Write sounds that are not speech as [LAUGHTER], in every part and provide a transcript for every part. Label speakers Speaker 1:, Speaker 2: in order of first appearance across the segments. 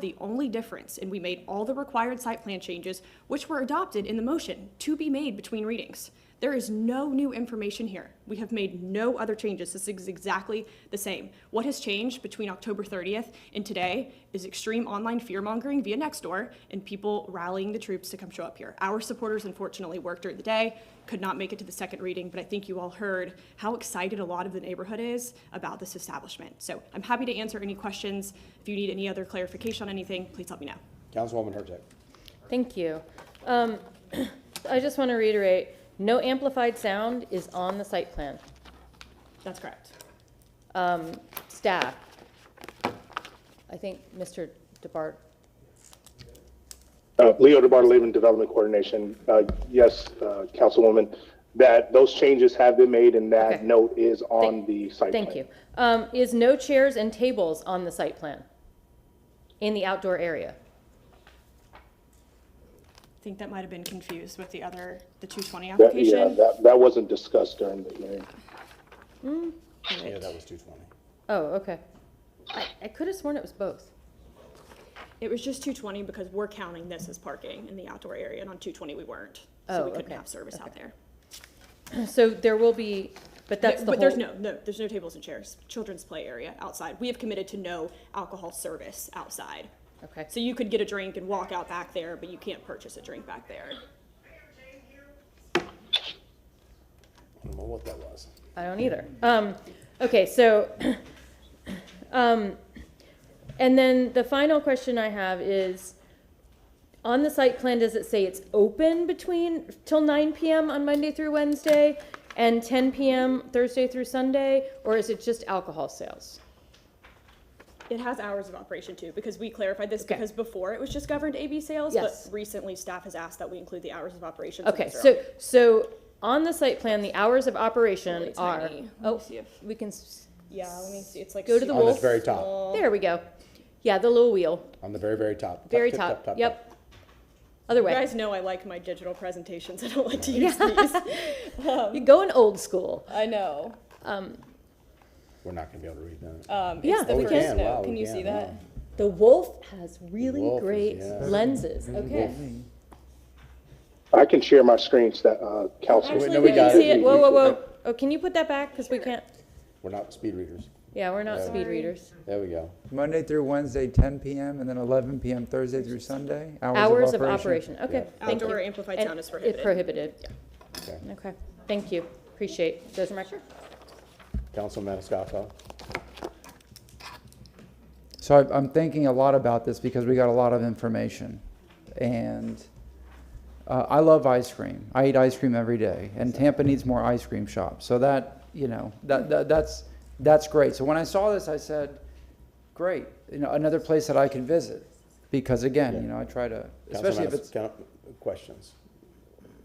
Speaker 1: the only difference, and we made all the required site plan changes, which were adopted in the motion to be made between readings. There is no new information here. We have made no other changes. This is exactly the same. What has changed between October 30th and today is extreme online fear mongering via Nextdoor and people rallying the troops to come show up here. Our supporters unfortunately worked during the day, could not make it to the second reading, but I think you all heard how excited a lot of the neighborhood is about this establishment. So I'm happy to answer any questions. If you need any other clarification on anything, please let me know.
Speaker 2: Councilwoman Hurtak.
Speaker 3: Thank you. Um, [CLEARS THROAT] I just want to reiterate, no amplified sound is on the site plan.
Speaker 1: That's correct.
Speaker 3: Um, Staff, I think Mr. DeBart,
Speaker 4: Uh, Leo DeBartolome, Development Coordination. Uh, Yes, uh, Councilwoman, that those changes have been made and that
Speaker 3: Okay.
Speaker 4: note is on the site plan.
Speaker 3: thank you. Um, Is no chairs and tables on the site plan in the outdoor area?
Speaker 1: I think that might have been confused with the other, the 220
Speaker 4: That- Yeah,
Speaker 1: application.
Speaker 4: that, that wasn't discussed during the hearing.
Speaker 2: Yeah, that was 220.
Speaker 3: Oh, okay. I- I could have sworn it was both. [CLEARS THROAT]
Speaker 1: It was just 220 because we're counting this as parking in the outdoor area, and on 220 we weren't.
Speaker 3: Oh,
Speaker 1: So we couldn't
Speaker 3: okay,
Speaker 1: have service out there.
Speaker 3: So there will be, but that's the whole.
Speaker 1: But there's no, no, there's no tables and chairs, children's play area outside. We have committed to no alcohol service outside.
Speaker 3: Okay.
Speaker 1: So you could get a drink and walk out back there, but you can't purchase a drink back there.
Speaker 2: I don't know what that was.
Speaker 3: I don't either. Um, okay, so, [CLEARS THROAT] um, and then the final question I have is, on the site plan, does it say it's open between, till nine PM on Monday through Wednesday and ten PM Thursday through Sunday, or is it just alcohol sales?
Speaker 1: It has hours of operation too, because we clarified this,
Speaker 3: Okay.
Speaker 1: because before it was just governed AB sales,
Speaker 3: Yes.
Speaker 1: but recently staff has asked that we include the hours of operation.
Speaker 3: Okay,
Speaker 1: these are
Speaker 3: so,
Speaker 1: all-
Speaker 3: so on the site plan, the hours of operation
Speaker 1: Really tiny.
Speaker 3: are,
Speaker 1: Let me
Speaker 3: oh,
Speaker 1: see if-
Speaker 3: we can, s-
Speaker 1: Yeah, let me see, it's like.
Speaker 3: Go to the
Speaker 1: super
Speaker 2: On the very
Speaker 1: small.
Speaker 2: top,
Speaker 3: there we go. Yeah, the little wheel,
Speaker 2: on the very, very top. Top,
Speaker 3: very
Speaker 2: tip,
Speaker 3: top, yep. Other
Speaker 1: You
Speaker 3: way.
Speaker 1: guys know I like my digital presentations, [LAUGHS] I don't like to use these.
Speaker 3: [LAUGHS] You're going old school.
Speaker 1: I know.
Speaker 2: We're not going to be able to read that.
Speaker 1: Um,
Speaker 3: Yeah,
Speaker 1: it's the
Speaker 3: we
Speaker 1: first
Speaker 3: Uh, can.
Speaker 2: Wow,
Speaker 1: note,
Speaker 2: we
Speaker 1: can you
Speaker 2: can,
Speaker 1: see
Speaker 2: wow.
Speaker 1: that?
Speaker 3: The wolf has really
Speaker 2: Wolf is-
Speaker 3: great
Speaker 2: yeah.
Speaker 3: lenses. Okay.
Speaker 4: I can share my screen, sta- uh, Council.
Speaker 2: Actually,
Speaker 3: Actually,
Speaker 2: no,
Speaker 3: we
Speaker 2: we
Speaker 3: can
Speaker 2: got
Speaker 3: see
Speaker 2: it.
Speaker 3: it. Whoa, whoa, whoa. Oh, can you put that back? Because we can't.
Speaker 2: We're not speed readers.
Speaker 3: Yeah, we're not
Speaker 2: Yeah.
Speaker 3: speed readers.
Speaker 2: There we go.
Speaker 5: Monday through Wednesday, 10 PM, and then 11 PM Thursday through Sunday?
Speaker 3: Hours of operation. Okay. Thank you.
Speaker 1: Outdoor amplified
Speaker 3: And
Speaker 1: sound is
Speaker 3: it's
Speaker 1: prohibited.
Speaker 3: prohibited.
Speaker 2: Okay.
Speaker 3: Okay. Thank you. Appreciate. Those are my.
Speaker 2: Council Maniscalco.
Speaker 5: So I- I'm thinking a lot about this because we got a lot of information. And uh, I love ice cream. I eat ice cream every day. And Tampa needs more ice cream shops. So that, you know, that, that that's that's great. So when I saw this, I said, great, you know, another place that I can visit. Because again, you know, I try to,
Speaker 2: Council
Speaker 5: especially if
Speaker 2: Manis-
Speaker 5: it's,
Speaker 2: coun- Questions.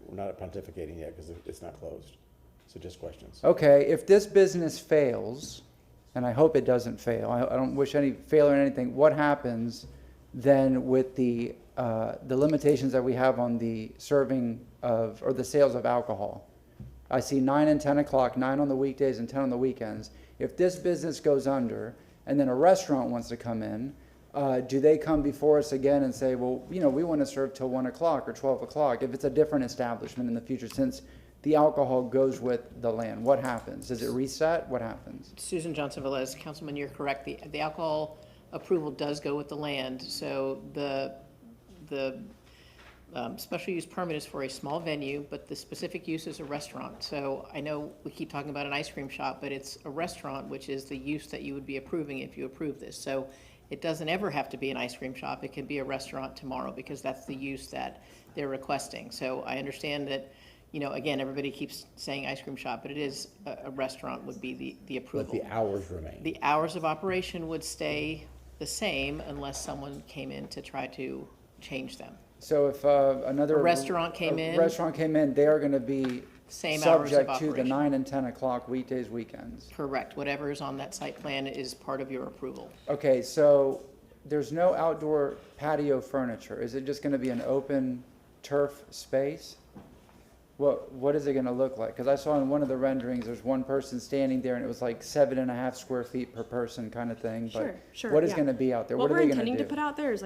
Speaker 2: We're not pontificating yet because it's not closed. So just questions.
Speaker 5: okay, if this business fails, and I hope it doesn't fail, I, I don't wish any failure in anything, what happens then with the, uh, the limitations that we have on the serving of, or the sales of alcohol? I see nine and ten o'clock, nine on the weekdays and ten on the weekends. If this business goes under, and then a restaurant wants to come in, uh, do they come before us again and say, well, you know, we want to serve till one o'clock or twelve o'clock? If it's a different establishment in the future, since the alcohol goes with the land, what happens? Does it reset? What happens?
Speaker 6: Susan Johnson Velez, Councilman, you're correct. The, the alcohol approval does go with the land. So the, the um, special use permit is for a small venue, but the specific use is a restaurant. So I know we keep talking about an ice cream shop, but it's a restaurant, which is the use that you would be approving if you approve this. So it doesn't ever have to be an ice cream shop. It can be a restaurant tomorrow because that's the use that they're requesting. So I understand that, you know, again, everybody keeps saying ice cream shop, but it is, uh, a, a restaurant would be the, the
Speaker 2: But
Speaker 6: approval.
Speaker 2: the hours remain.
Speaker 6: The hours of operation would stay the same unless someone came in to try to change them.
Speaker 5: So if uh, another
Speaker 6: A restaurant came
Speaker 5: a
Speaker 6: in.
Speaker 5: restaurant came in, they are going to be
Speaker 6: Same hours of
Speaker 5: subject to the
Speaker 6: operation.
Speaker 5: nine and ten o'clock weekdays, weekends.
Speaker 6: Correct, whatever is on that site plan is part of your approval.
Speaker 5: Okay, so there's no outdoor patio furniture. Is it just gonna be an open turf space? What, what is it gonna look like? Cause I saw in one of the renderings, there's one person standing there and it was like seven and a half square feet per person kind of thing, but
Speaker 1: Sure, sure,
Speaker 5: what is
Speaker 1: yeah.
Speaker 5: gonna be out there?
Speaker 1: What
Speaker 5: What are
Speaker 1: we're
Speaker 5: they gonna
Speaker 1: intending to
Speaker 5: do?
Speaker 1: put out there is